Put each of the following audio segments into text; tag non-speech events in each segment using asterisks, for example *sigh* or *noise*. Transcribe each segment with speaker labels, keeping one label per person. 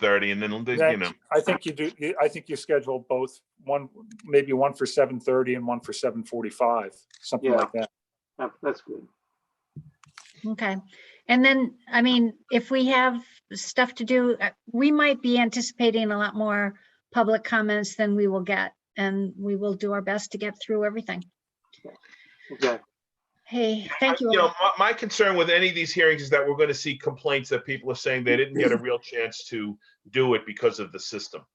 Speaker 1: thirty, and then, they- you
Speaker 2: That-
Speaker 1: know,
Speaker 2: I think you do, you- I think you schedule both, one, maybe one for seven thirty and one for seven forty-five, something
Speaker 3: Yeah.
Speaker 2: like that.
Speaker 3: That- That's good.
Speaker 4: Okay. And then, I mean, if we have stuff to do, uh, we might be anticipating a lot more public comments than we will get. And we will do our best to get through everything.
Speaker 3: Okay.
Speaker 4: Hey, thank you.
Speaker 1: You know,
Speaker 4: all.
Speaker 1: my, my concern with any of these hearings is that we're gonna see complaints that people are saying they didn't get
Speaker 4: *laughs*
Speaker 1: a real chance to do it because of the system.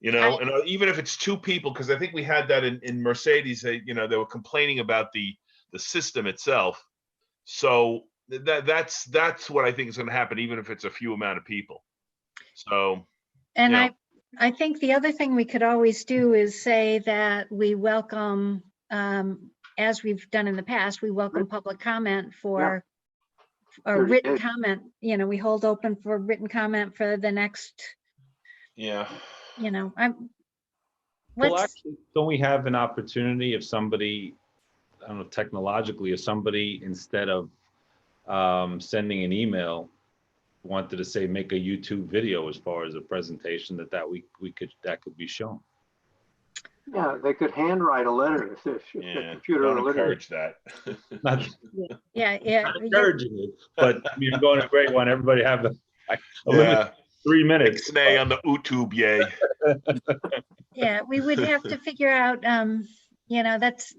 Speaker 1: You know,
Speaker 4: Right.
Speaker 1: and uh, even if it's two people, because I think we had that in, in Mercedes, they, you know, they were complaining about the, the system itself. So th- that, that's, that's what I think is gonna happen, even if it's a few amount of people. So,
Speaker 4: And
Speaker 1: yeah.
Speaker 4: I, I think the other thing we could always do is say that we welcome, um, as we've done in the past, we welcome public comment for or
Speaker 3: 30
Speaker 4: written
Speaker 3: days.
Speaker 4: comment, you know, we hold open for written comment for the next,
Speaker 1: yeah.
Speaker 4: you know, I'm.
Speaker 5: Well,
Speaker 4: let's-
Speaker 5: actually, Don't we have an opportunity if somebody, I don't know, technologically, if somebody, instead of um, sending an email, wanted to say, make a YouTube video as far as a presentation that that we, we could, that could be shown?
Speaker 3: Yeah, they could handwrite a letter if they're, *laughs* if
Speaker 1: Yeah,
Speaker 3: they're computer
Speaker 1: Don't
Speaker 3: illiterate.
Speaker 1: encourage that. *laughs*
Speaker 5: Not
Speaker 4: Yeah, yeah.
Speaker 5: not
Speaker 4: you're-
Speaker 5: encouraging it, but I mean, I'm going to a great one. Everybody have a like, a limit of
Speaker 1: Yeah,
Speaker 5: three minutes.
Speaker 1: nay on the YouTube, yay.
Speaker 4: Yeah, we would have
Speaker 5: *laughs*
Speaker 4: to figure out, um, you know, that's,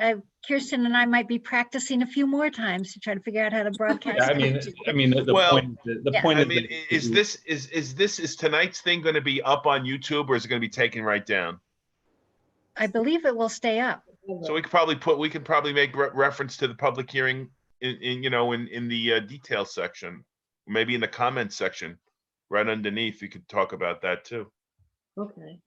Speaker 4: uh, Kirsten and I might be practicing a few more times to try to figure out how to broadcast.
Speaker 5: Yeah, I mean,
Speaker 4: it.
Speaker 5: I mean, the the
Speaker 1: Well,
Speaker 5: point, the the
Speaker 4: yeah.
Speaker 5: point
Speaker 1: I
Speaker 5: is.
Speaker 1: mean,
Speaker 5: that
Speaker 1: i-
Speaker 5: you-
Speaker 1: is this, is, is this, is tonight's thing gonna be up on YouTube or is it gonna be taken right down?
Speaker 4: I believe it will stay up.
Speaker 1: So we could probably put, we could probably make re- reference to the public hearing in, in, you know, in, in the uh, detail section. Maybe in the comments section, right underneath, you could talk about that too.
Speaker 6: Okay.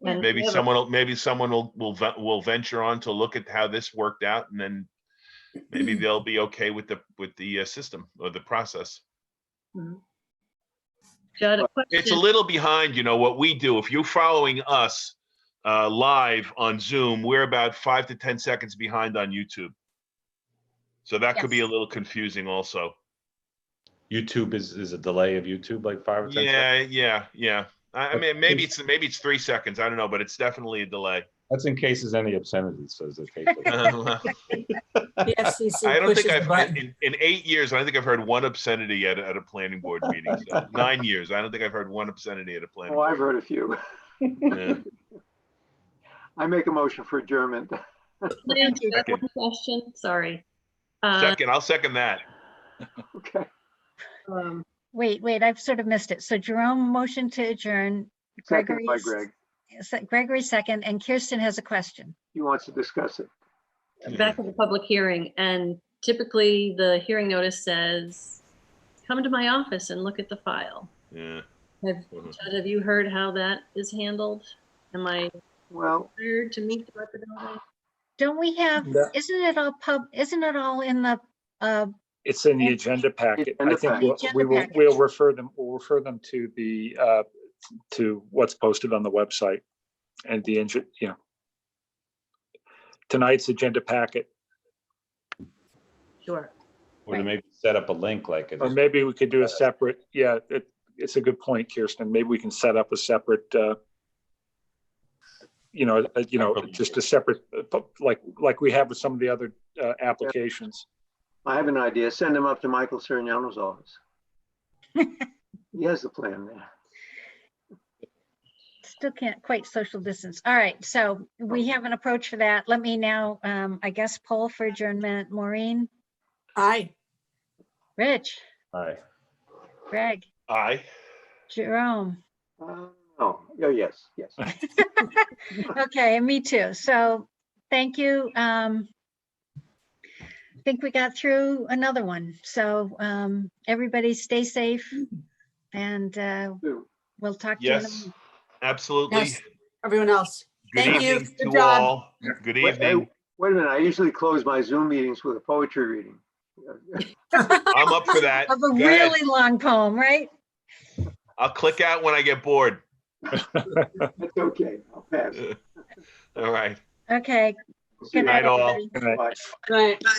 Speaker 4: Yeah.
Speaker 6: And
Speaker 1: Maybe
Speaker 6: we have a-
Speaker 1: someone, will maybe someone will, will, ve- will venture on to look at how this worked out and then
Speaker 6: *clears throat*
Speaker 1: maybe they'll be okay with the, with the uh, system or the process.
Speaker 6: Got
Speaker 1: It's
Speaker 6: a
Speaker 1: a
Speaker 7: Hmm.
Speaker 6: question.
Speaker 1: little behind, you know, what we do. If you're following us uh, live on Zoom, we're about five to 10 seconds behind on YouTube. So that could be a little confusing also.
Speaker 5: YouTube is, is a delay of YouTube, like five or 10 seconds.
Speaker 1: Yeah, yeah, yeah. I, I
Speaker 5: But
Speaker 1: mean, maybe
Speaker 5: it's-
Speaker 1: it's, maybe it's three seconds. I don't know, but it's definitely a
Speaker 7: *laughs*
Speaker 1: delay.
Speaker 5: That's in cases any obscenity says
Speaker 1: *laughs*
Speaker 5: okay.
Speaker 1: I
Speaker 7: The FCC
Speaker 1: don't
Speaker 7: pushes
Speaker 1: think
Speaker 7: the
Speaker 1: I've, in,
Speaker 7: button.
Speaker 1: in- in eight years, I don't think I've heard one obscenity at, a- at a planning board meeting.
Speaker 5: *laughs*
Speaker 1: So Nine years, I don't think I've heard one obscenity at a planning.
Speaker 3: Oh, I've heard a few.
Speaker 1: Yeah.
Speaker 3: I make a motion for adjournment. *laughs*
Speaker 6: Can I answer that
Speaker 1: Second.
Speaker 6: one Question, sorry. Uh,
Speaker 1: Second, I'll second that.
Speaker 3: Okay.
Speaker 6: um,
Speaker 4: Wait, wait, I've sort of missed it. So Jerome motion to adjourn,
Speaker 3: Second by
Speaker 4: Gregory's-
Speaker 3: Greg.
Speaker 4: se- Gregory second, and Kirsten has a question.
Speaker 3: He wants to discuss it.
Speaker 1: Mm-hmm.
Speaker 6: Back at the public hearing, and typically the hearing notice says, come to my office and look at the file.
Speaker 1: Yeah.
Speaker 6: Have,
Speaker 1: Mhm.
Speaker 6: Judd, have you heard how that is handled? Am I
Speaker 3: Well,
Speaker 6: required to meet the representative?
Speaker 4: Don't we have,
Speaker 2: Yeah.
Speaker 4: isn't it all pub, isn't it all in the, uh,
Speaker 2: It's in the agenda packet. I
Speaker 3: Agenda
Speaker 2: think
Speaker 3: packet.
Speaker 2: we'll-
Speaker 4: Agenda
Speaker 2: we will,
Speaker 4: package.
Speaker 2: we'll refer them, we'll refer them to the, uh, to what's posted on the website and the, inge- you know. Tonight's agenda packet,
Speaker 6: Sure.
Speaker 5: Or to maybe set up a link like it.
Speaker 2: or
Speaker 5: is.
Speaker 2: maybe we could do a separate, yeah, it, it's a good point, Kirsten. Maybe we can set up a separate, uh, you know, uh, you know, just a separate, uh, pu- like, like we have with some of the other, uh, applications.
Speaker 3: I have an idea. Send him up to Michael Serignano's office. He has the plan there.
Speaker 4: still can't quite social distance. All right, so we have an approach for that. Let me now, um, I guess, poll for adjournment. Maureen,
Speaker 7: Aye.
Speaker 4: Rich,
Speaker 5: All right.
Speaker 4: Greg,
Speaker 1: Aye.
Speaker 4: Jerome.
Speaker 3: Uh, Oh, yeah, yes, yes.
Speaker 1: *laughs*
Speaker 4: Okay, and me too. So thank you. Um, I think we got through another one. So, um, everybody stay safe and, uh,
Speaker 3: Do.
Speaker 4: we'll talk to you. in the
Speaker 1: Yes,
Speaker 4: morning.
Speaker 1: absolutely.
Speaker 7: Yes, everyone else. *laughs*
Speaker 1: Good
Speaker 7: Thank you.
Speaker 1: evening
Speaker 7: Good
Speaker 1: to
Speaker 7: job.
Speaker 1: all. Good
Speaker 3: Wait, hey,
Speaker 1: evening.
Speaker 3: Wait a minute, I usually close my Zoom meetings with a poetry reading.
Speaker 1: I'm up
Speaker 7: *laughs*
Speaker 1: for that.
Speaker 4: Of a
Speaker 1: Go ahead.
Speaker 4: really long poem, right?
Speaker 1: I'll click out when I get bored.
Speaker 3: That's okay, I'll
Speaker 1: Uh,
Speaker 3: pass.
Speaker 1: All right.
Speaker 4: Okay.
Speaker 3: See you.
Speaker 1: night, all.
Speaker 4: everybody.
Speaker 2: Good night.
Speaker 3: Bye.
Speaker 7: Right.